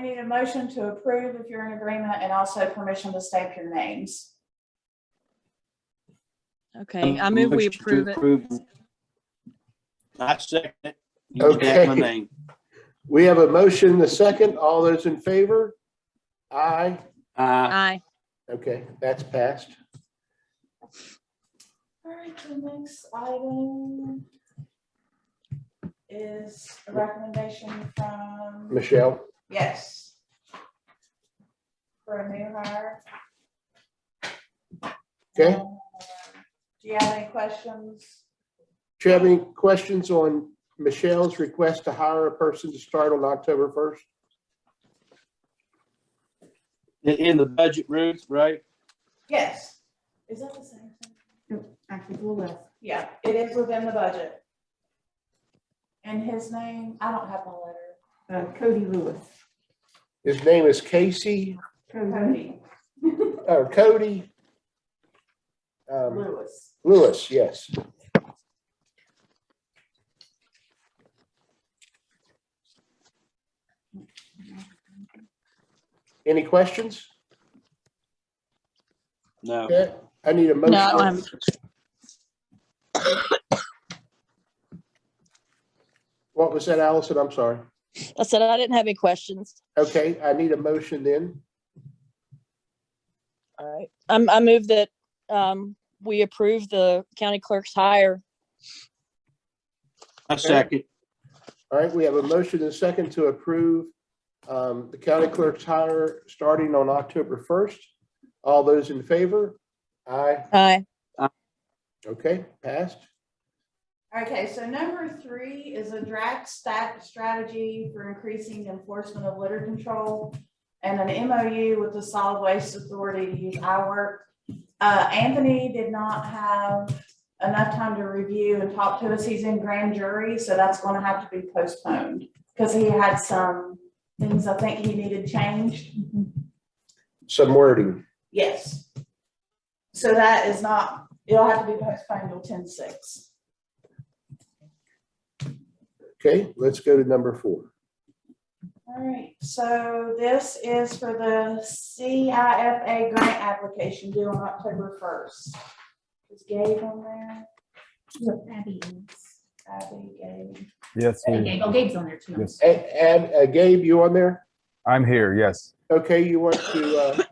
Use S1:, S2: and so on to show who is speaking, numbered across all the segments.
S1: need a motion to approve if you're in agreement and also permission to stamp your names.
S2: Um,
S3: Okay, I move we
S2: Motion to
S3: approve it.
S2: I second it. You redact my
S4: Okay.
S2: name.
S4: We have a motion, the second. All those in favor? Aye.
S2: Uh,
S3: Aye.
S4: Okay, that's passed.
S1: All right, the next item is a recommendation from,
S4: Michelle?
S1: yes. For a new hire.
S4: Okay.
S1: Um, Do you have any questions?
S4: Do you have any questions on Michelle's request to hire a person to start on October 1st?
S2: in, in the budget, Ruth, right?
S1: Yes. Is that the same thing?
S5: Actually, we'll left.
S1: Yeah, it is within the budget. And his name, I don't have my letter,
S5: Uh, Cody Lewis.
S4: His name is Casey,
S1: Cody
S4: or Cody um,
S1: Lewis.
S4: Lewis, yes. Any questions?
S2: No.
S4: Okay, I need a
S3: No,
S4: motion.
S3: I'm,
S4: What was that, Allison? I'm sorry.
S3: I said I didn't have any questions.
S4: Okay, I need a motion then.
S3: All right. I'm, I move that, um, we approve the county clerk's hire.
S2: I second.
S4: All right, we have a motion and a second to approve um, the county clerk's hire starting on October 1st. All those in favor? Aye.
S3: Aye.
S4: Okay, passed.
S1: Okay, so number three is a draft stat strategy for increasing enforcement of litter control and an MOU with the Solid Waste Authority to use iWork. Uh, Anthony did not have enough time to review and talk to us. He's in grand jury, so that's gonna have to be postponed. Because he had some things I think he needed changed.
S4: Some wording.
S1: Yes. So that is not, it'll have to be postponed till ten six.
S4: Okay, let's go to number four.
S1: All right, so this is for the CIFA grant application due on October first. Is Gabe on there?
S5: Abby is.
S1: Abby, Gabe.
S6: Yes,
S5: And
S6: ma'am.
S5: Gabe- Oh, Gabe's on there too.
S6: yes.
S4: And uh, Gabe, you on there?
S6: I'm here. Yes.
S4: Okay, you want to uh,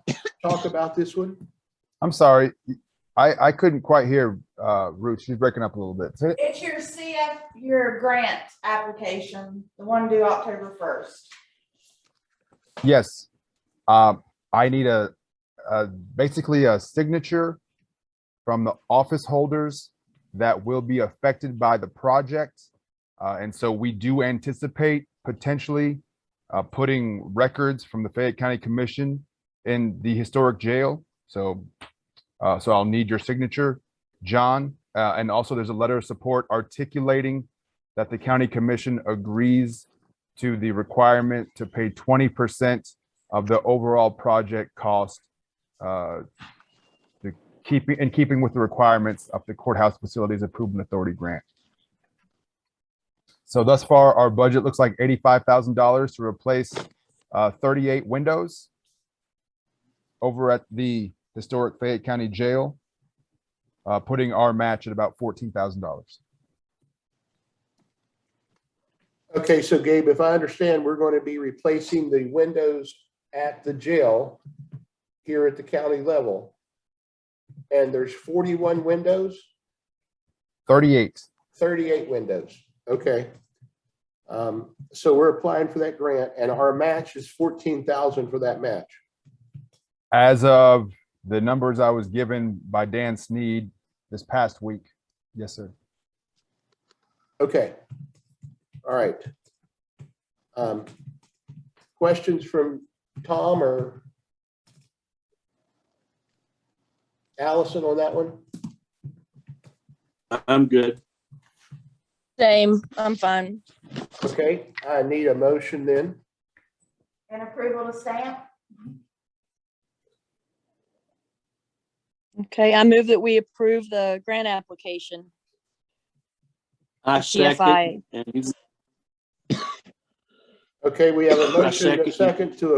S4: talk about this one?
S6: I'm sorry. I, I couldn't quite hear uh, Ruth. She's breaking up a little bit. Say-
S1: It's your CF, your grant application, the one due October first.
S6: Yes. Um, I need a, a basically a signature from the office holders that will be affected by the project. Uh, and so we do anticipate potentially uh, putting records from the Fayette County Commission in the historic jail. So, uh, so I'll need your signature, John. Uh, and also there's a letter of support articulating that the county commission agrees to the requirement to pay twenty percent of the overall project cost. uh, To keeping, in keeping with the requirements of the courthouse facilities improvement authority grant. So thus far, our budget looks like eighty-five thousand dollars to replace uh, thirty-eight windows over at the historic Fayette County Jail, uh, putting our match at about fourteen thousand dollars.
S4: Okay, so Gabe, if I understand, we're going to be replacing the windows at the jail here at the county level. And there's 41 windows,
S6: Thirty-eight.
S4: 38 windows. Okay. Um, So we're applying for that grant and our match is 14,000 for that match.
S6: As of the numbers I was given by Dan Sneed this past week. Yes, sir.
S4: Okay. All right. Um, Questions from Tom or Allison on that one?
S2: I'm good.
S3: Same. I'm fine.
S4: Okay, I need a motion then.
S1: And approval to stamp?
S3: Okay, I move that we approve the grant application.
S2: I
S3: CFI.
S2: second. And you-
S4: Okay, we have a
S2: I
S4: motion, and
S2: second.
S4: a second to